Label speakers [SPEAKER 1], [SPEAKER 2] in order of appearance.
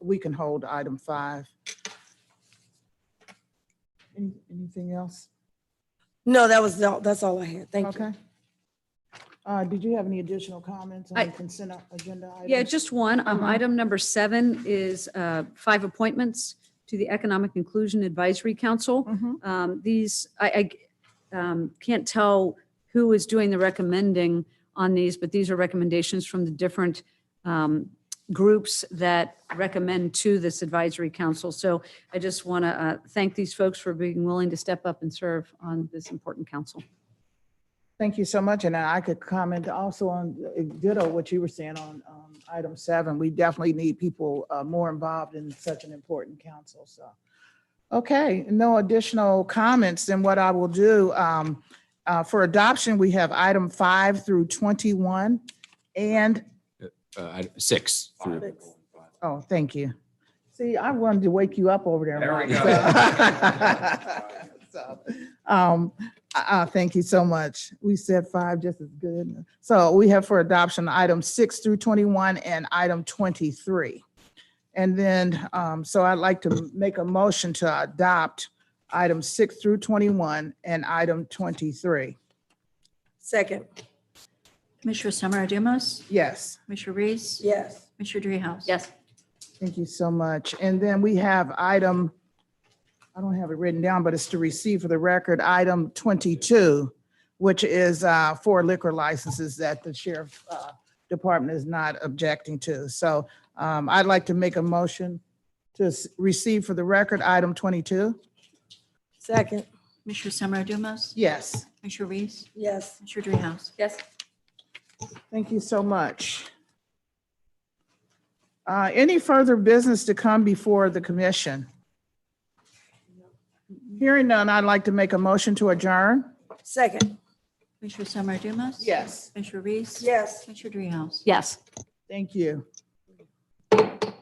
[SPEAKER 1] we can hold item five. Any- Anything else?
[SPEAKER 2] No, that was, all. that's all I had. Thank you.
[SPEAKER 1] Okay. Uh, did you have any additional comments
[SPEAKER 3] I-
[SPEAKER 1] on the consent agenda?
[SPEAKER 3] Yeah,
[SPEAKER 1] items?
[SPEAKER 3] just one. Um,
[SPEAKER 1] Mhm.
[SPEAKER 3] Item number seven is uh, five appointments to the Economic Inclusion Advisory Council.
[SPEAKER 1] Mhm.
[SPEAKER 3] Um, These, I I, um, can't tell who is doing the recommending on these, but these are recommendations from the different um, groups that recommend to this advisory council. So I just want to thank these folks for being willing to step up and serve on this important council.
[SPEAKER 1] Thank you so much. And I could comment also on uh, ditto what you were saying on um, item seven. We definitely need people uh, more involved in such an important council, so. Okay, no additional comments. Then what I will do, um, uh, for adoption, we have item five through 21. And,
[SPEAKER 4] uh, item six through.
[SPEAKER 1] oh, thank you. See, I wanted to wake you up over there.
[SPEAKER 5] There we
[SPEAKER 1] Mike, so. So, Um, uh, uh, thank you so much. We said five just as good. So we have for adoption item six through twenty-one and item twenty-three. And then, um, so I'd like to make a motion to adopt item six through twenty-one and item twenty-three.
[SPEAKER 2] Second,
[SPEAKER 6] Commissioner Summer Adumas,
[SPEAKER 1] Yes,
[SPEAKER 6] Commissioner Reese,
[SPEAKER 2] yes.
[SPEAKER 6] Commissioner Dreehouse.
[SPEAKER 3] Yes.
[SPEAKER 1] thank you so much. And then we have item, I don't have it written down, but it's to receive for the record, item twenty-two, which is uh, for liquor licenses that the sheriff uh, department is not objecting to. So um, I'd like to make a motion to s- receive for the record, item twenty-two.
[SPEAKER 2] Second,
[SPEAKER 6] Commissioner Summer Adumas,
[SPEAKER 1] Yes,
[SPEAKER 6] Commissioner Reese,
[SPEAKER 2] yes.
[SPEAKER 6] Commissioner Dreehouse.
[SPEAKER 3] Yes.
[SPEAKER 1] thank you so much. Uh, Any further business to come before the commission? Hearing none, I'd like to make a motion to adjourn.
[SPEAKER 2] Second,
[SPEAKER 6] Commissioner Summer Adumas.
[SPEAKER 1] Yes.
[SPEAKER 6] Commissioner Reese.
[SPEAKER 2] yes.
[SPEAKER 6] Commissioner Dreehouse.
[SPEAKER 3] Yes.
[SPEAKER 1] Thank you.